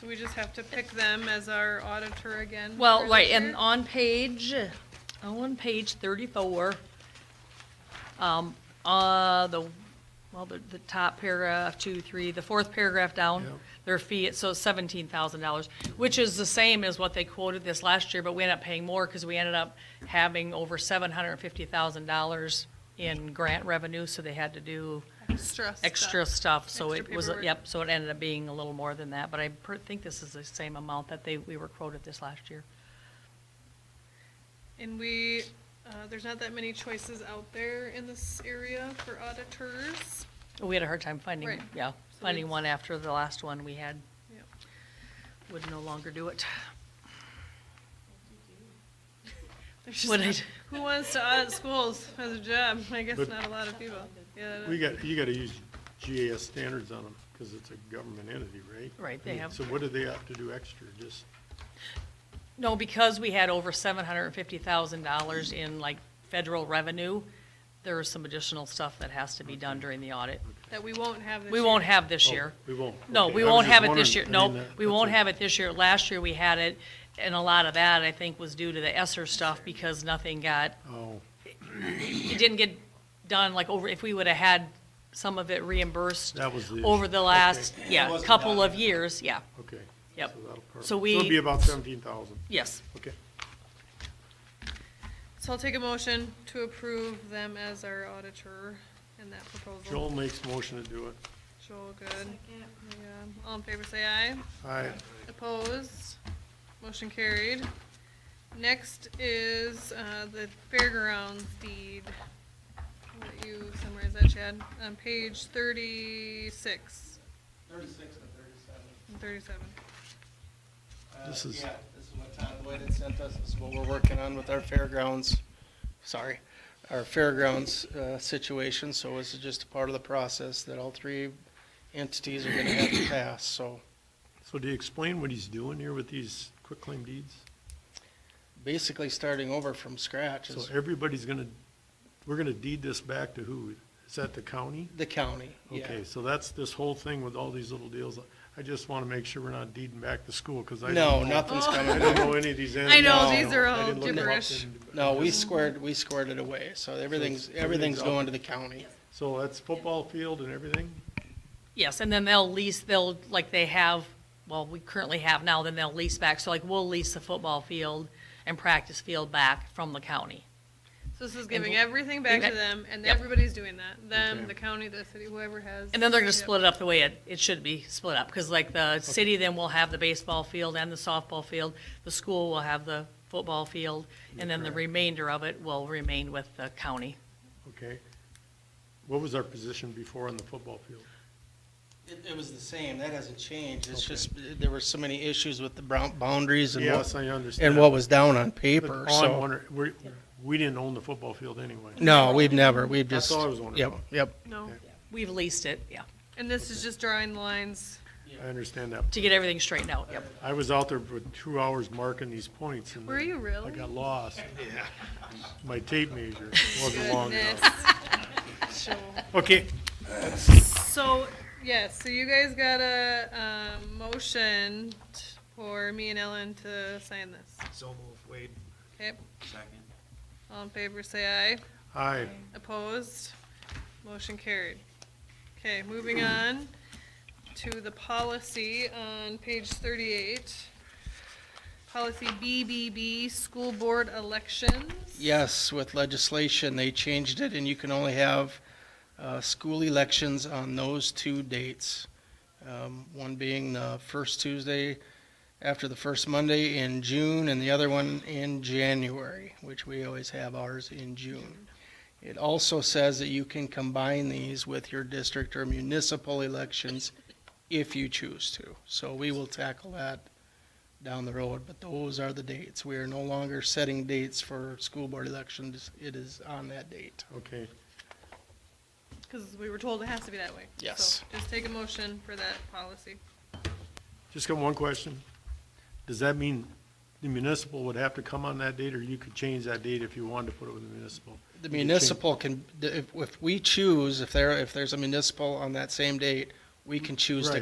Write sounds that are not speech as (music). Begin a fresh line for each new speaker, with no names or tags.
So we just have to pick them as our auditor again? for
Well,
this
right, and
year?
on page, oh, on page thirty-four, um, uh, the, well, the, the top paragraph, two, three, the fourth paragraph down,
Yeah.
their fee, so seventeen thousand dollars, which is the same as what they quoted this last year, but we ended up paying more because we ended up having over seven hundred and fifty thousand dollars in grant revenue, so they had to do
Extra stuff.
extra stuff, so
Extra
it was,
paperwork.
yep, so it ended up being a little more than that, but I per- think this is the same amount that they, we were quoted this last year.
And we, uh, there's not that many choices out there in this area for auditors.
We had a hard time finding,
Right.
yeah,
So
finding
it's-
one after the last one we had,
Yep.
would no longer
(laughs)
do it.
There's just
What I
not-
d-
(laughs) Who wants to audit schools as a job? I guess
But-
not a lot of people. Yeah,
We got, you gotta use GAS standards on them, because it's a government entity, right?
Right, they have-
So what do they have to do extra, just,
No, because we had over seven hundred and fifty thousand dollars in like federal revenue, there is some additional stuff that has to be done during the audit.
That we won't have this
We
year.
won't have this year.
oh, we won't.
No,
Okay,
we
I was
won't
just
have it this year,
wondering,
no,
I mean,
we
that's
won't
a-
have it this year. Last year, we had it, and a lot of that, I think, was due to the Esser stuff, because nothing got,
Oh,
it didn't get done, like, over, if we would've had some of it reimbursed
That was the issue.
over the last,
Okay. It
yeah,
wasn't
couple
done.
of years, yeah,
okay.
Yep.
So that'll cover-
So
it'll
we-
be about seventeen thousand,
yes.
okay.
So I'll take a motion to approve them as our auditor in that proposal.
Joel makes motion to do it.
Joel, good. Yeah. All in favor, say aye.
Aye,
Opposed? Motion carried. Next is uh, the fairgrounds deed. I'll let you summarize that, Chad, on page thirty-six
Thirty-six to thirty-seven.
and thirty-seven.
Uh,
This is-
Yeah, this is what Todd Boyd had sent us, this is what we're working on with our fairgrounds, sorry, our fairgrounds uh, situation, so this is just a part of the process that all three entities are
(coughs)
gonna have to pass, so.
so do you explain what he's doing here with these quitclaim deeds?
Basically, starting over from scratch
So
is
everybody's gonna, we're gonna deed this back to who? Is that the county?
the county, yeah.
Okay, so that's this whole thing with all these little deals. I just wanna make sure we're not deeding back the school, cause I. didn't
No,
know-
nothing's
Oh.
I
coming
don't
back.
know any of these
I
entities.
know, these are
I
all
didn't look them up
gibberish.
and-
No, we squared, we squared it away, so everything's, everything's
everything's up.
going to the county.
So that's football field and everything?
Yes, and then they'll lease, they'll, like they have, well, we currently have now, then they'll lease back, so like, we'll lease the football field and practice field back from the county.
So this is giving
bl-
everything back to
Exact-
them, and
Yep.
everybody's doing that. Them,
Okay.
the county, the city, whoever has.
And then they're gonna
Yep.
split it up the way it, it should be split up, because like the city then will have the baseball field and the softball field, the school will have the football field, and then the
Correct.
remainder of it will remain with the county.
Okay. What was our position before on the football field?
It, it was the same, that hasn't changed, it's
Okay.
just, there were so many issues with the brown boundaries and what,
Yes, I understand.
and what was down on
But
paper,
all I'm
so.
wondering, we, we didn't own the football field anyway.
No, we've never, we've
That's
just.
all I was wondering
Yep,
about.
yep.
No,
We've leased it, yeah,
and this is just drawing the lines.
I understand that.
to get everything straightened out, yep.
I was out there for two hours marking these points and.
Were
then
you really?
I got lost. Yeah. My tape
(laughs)
measure wasn't long
Goodness.
enough.
(laughs) Joel.
Okay,
So, yes, so you guys got a, um, motion t- for me and Ellen to sign this.
So move, Wade,
Okay,
second.
all in favor, say aye.
aye.
Opposed? Motion carried. Okay, moving on to the policy on page thirty-eight. Policy BBB, school board elections.
Yes, with legislation, they changed it, and you can only have uh, school elections on those two dates. Um, One being the first Tuesday after the first Monday in June, and the other one in January, which we always have ours in June. It also says that you can combine these with your district or municipal elections if you choose to. So we will tackle that down the road, but those are the dates. We are no longer setting dates for school board elections. It is on that date.
Okay,
Cause we were told it has to be that way.
Yes.
So Just take a motion for that policy.
just got one question. Does that mean the municipal would have to come on that date or you could change that date if you wanted to put it with the municipal?
The
You can change-
municipal can, if, if we choose, if there, if there's a municipal on that same date, we can choose to
Right.